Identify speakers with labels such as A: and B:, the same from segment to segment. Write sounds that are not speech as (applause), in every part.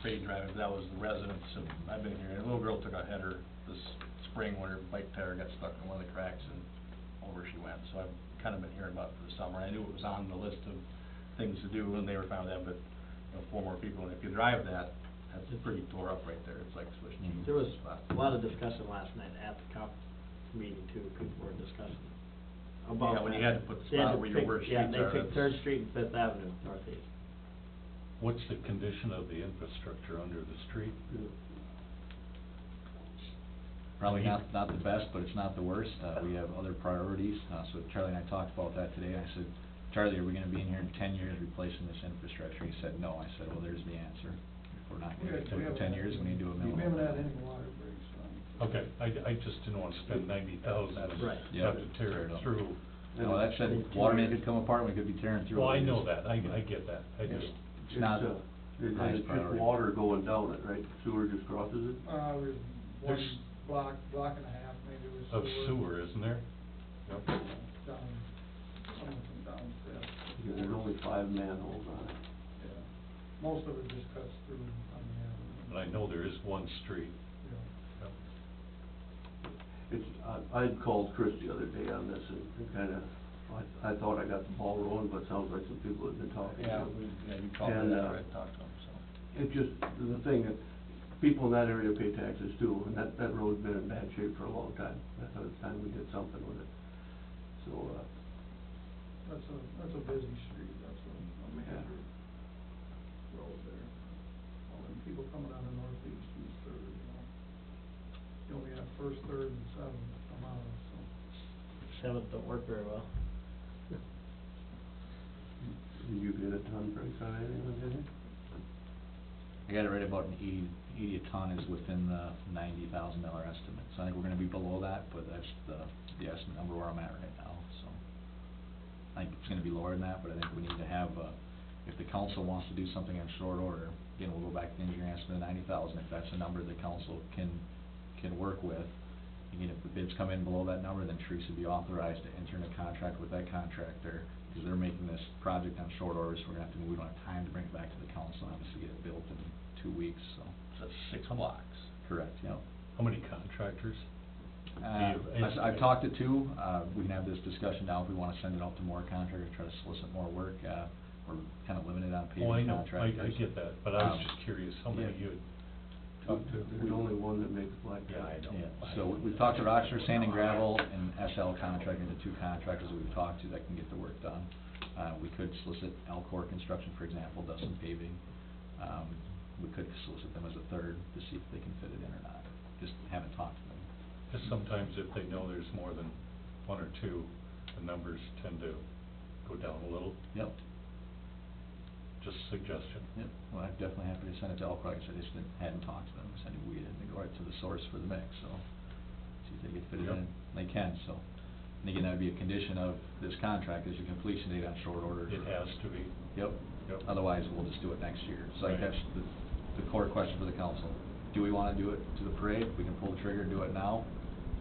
A: spade drive, that was the residents of, I've been here, and a little girl took a header this spring when her bike tire got stuck in one of the cracks and over she went, so I've kind of been hearing about it for the summer, I knew it was on the list of things to do, and they were found out, but, you know, four more people, and if you drive that, that's pretty tore up right there, it's like switching.
B: Mhm.
C: There was
A: spots.
C: a lot of discussion last night at the comp meeting too, people were discussing about
A: Yeah, when you
C: that.
A: had to put the
C: They
A: spot
C: had to
A: where your
C: pick-
A: worst streets
C: Yeah,
A: are,
C: they
A: that's-
C: picked Third Street and Fifth Avenue northeast.
B: What's the condition of the infrastructure under the street?
D: Probably not, not the best, but it's not the worst. Uh, we have other priorities. Uh, so Charlie and I talked about that today. I said, Charlie, are we gonna be in here in ten years replacing this infrastructure? He said, no. I said, well, there's the answer. If we're not
E: We
D: gonna
E: had-
D: get to
E: we
D: it in
E: haven't
D: ten
E: had-
D: years, we need to do a minimum.
E: We haven't had any water breaks Uh, on.
B: Okay, I, I just didn't want to spend ninety thousand and
C: Right.
D: Yeah.
B: have to tear it through.
D: No, that said, water main could come apart, and we could be tearing through.
B: Well,
D: all
B: I
D: these.
B: know that, I, I get that, I just,
D: It's not
F: It's, uh, And
D: highest
F: and it's just
D: priority.
F: water going down it, right? Sewer just crosses it?
E: Uh, there's
B: There's-
E: one block, block and a half maybe was
B: of
E: sewer.
B: sewer, isn't there? Yep.
E: Down, some of them down fifth,
F: Because there's only five manholes on it.
E: yeah. Most of it just cuts through on the
B: But
E: avenue.
B: I know there is one street.
E: Yeah.
B: Yep.
F: It's, I, I called Chris the other day on this and kinda, I, I thought I got the ball rolling, but it sounds like some people have been talking.
A: Oh,
F: to
A: Yeah,
F: him.
A: we, yeah, you called
F: And,
A: me
F: uh,
A: after I talked to them, so.
F: It just, the thing, that people in that area pay taxes too, and that, that road's been in bad shape for a long time. I thought it's time we did something with it. So, uh,
E: That's a, that's a busy street, that's a, a major road there. All them people coming out of northeast, east third, you know. You only have first, third, and seventh come out, so.
C: Seventh don't work very well.
F: did you get a ton break on anything, did you?
D: I got it right about an eighty, eighty a ton is within the ninety thousand dollar estimate. So I think we're gonna be below that, but that's the, the estimate number where I'm at right now, so. I think it's gonna be lower than that, but I think we need to have, uh, if the council wants to do something in short order, again, we'll go back to the engineering estimate of ninety thousand, if that's a number the council can, can work with. Again, if the bids come in below that number, then Teresa would be authorized to enter into contract with that contractor, because they're making this project on short orders, we're gonna have to, we don't have time to bring it back to the council, obviously get it built in two weeks, so.
A: That's six blocks.
D: Correct, yep.
B: How many contractors?
D: Uh,
B: Do you
D: I've- I've
B: estimate?
D: talked to two, uh, we can have this discussion now if we wanna send it out to more contractors, try to solicit more work, uh, we're kinda limited on
B: Oh, I
D: paving
B: know, I, I
D: contractors.
B: get that, but I was
D: Um,
B: just curious how many
D: yeah.
B: you had talked to.
F: There's only one that makes black.
B: Yeah, I know.
D: Yeah, so we- we've talked to Rochester Sand and Gravel and SL Contracting, the two contractors that we've talked to that can get the work done. Uh, we could solicit Alcor Construction, for example, does some paving. Um, we could solicit them as a third to see if they can fit it in or not. Just haven't talked to them.
B: Because sometimes if they know there's more than one or two, the numbers tend to go down a little,
D: Yep,
B: just suggestion.
D: yep, well, I'm definitely happy to send it to Alcor, like I said, I just didn't- hadn't talked to them, I said we didn't go right to the source for the mix, so. See if they can fit it
B: Yep.
D: in, they can, so. And again, that'd be a condition of this contract, is your completion date on short order.
B: It has to be.
D: Yep.
B: Yep.
D: Otherwise, we'll just do it next year. So I think
B: Right.
D: that's the, the core question for the council. Do we wanna do it to the parade? We can pull the trigger and do it now,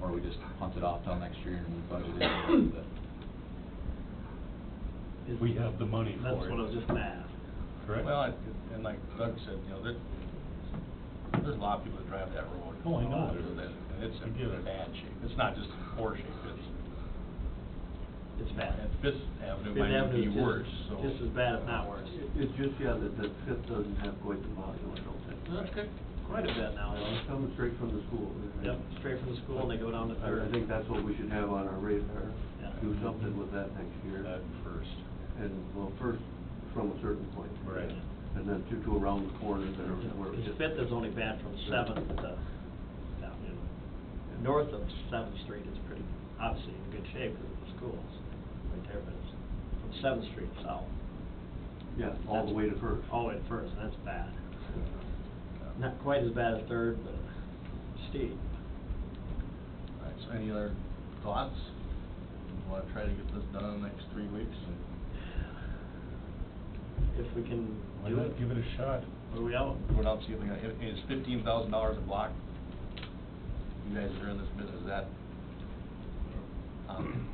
D: or we just punt it off till next year and we budget it in with it?
B: (laughs)
C: Is-
B: We have the money
C: That's
B: for
C: what I was
B: it,
C: just gonna ask.
B: (coughs) correct?
A: Well, and- and like Doug said, you know, there, there's a lot of people that drive that road.
B: Oh, I know
A: A lot of
B: there
A: people
B: is.
A: that- And it's
B: I get
A: in
B: it.
A: bad shape. It's not just in poor shape, it's,
C: It's bad.
A: and Fifth Avenue
C: Fifth
A: might
C: Avenue
A: be
C: is just-
A: worse, so.
C: Just as bad, if not worse.
F: It- It's just, yeah, that the fifth doesn't have quite the volume, I don't think.
C: That's good. Quite a bit now.
F: Uh, It's coming straight from the school. right?
C: Yep, straight from the school and they go down to
F: I-
C: third.
F: I think that's what we should have on our radar.
C: Yeah. Uh,
F: Do something with that next year.
B: That first.
F: And, well, first, from a certain point.
B: Right.
F: And then to, to around the corner there. where it
C: Because
F: gets-
C: Fifth is only bad from Seventh to, down in, north of Seventh Street is pretty, obviously in good shape because of the schools right there, but it's from Seventh Street south.
F: Yeah, all the way to first.
C: All the way to First, and that's bad. Not quite as bad as Third, but steep.
A: All right, so any other thoughts? We Wanna try to get this done in the next three weeks?
C: If we can
B: Why
C: do it,
B: not give it a shot?
C: what are we out?
A: What else you think, it is fifteen thousand dollars a block? You guys are in this business, is that? um,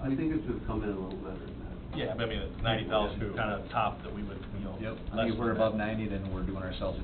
F: I I think it's gonna come in a little better than that.
A: Yeah, but I mean, ninety thousand
B: Two.
A: kind of top that we would, you know.
D: Yep, I
A: less
D: think if we're
A: than
D: above
A: that.
D: ninety, then we're doing ourselves a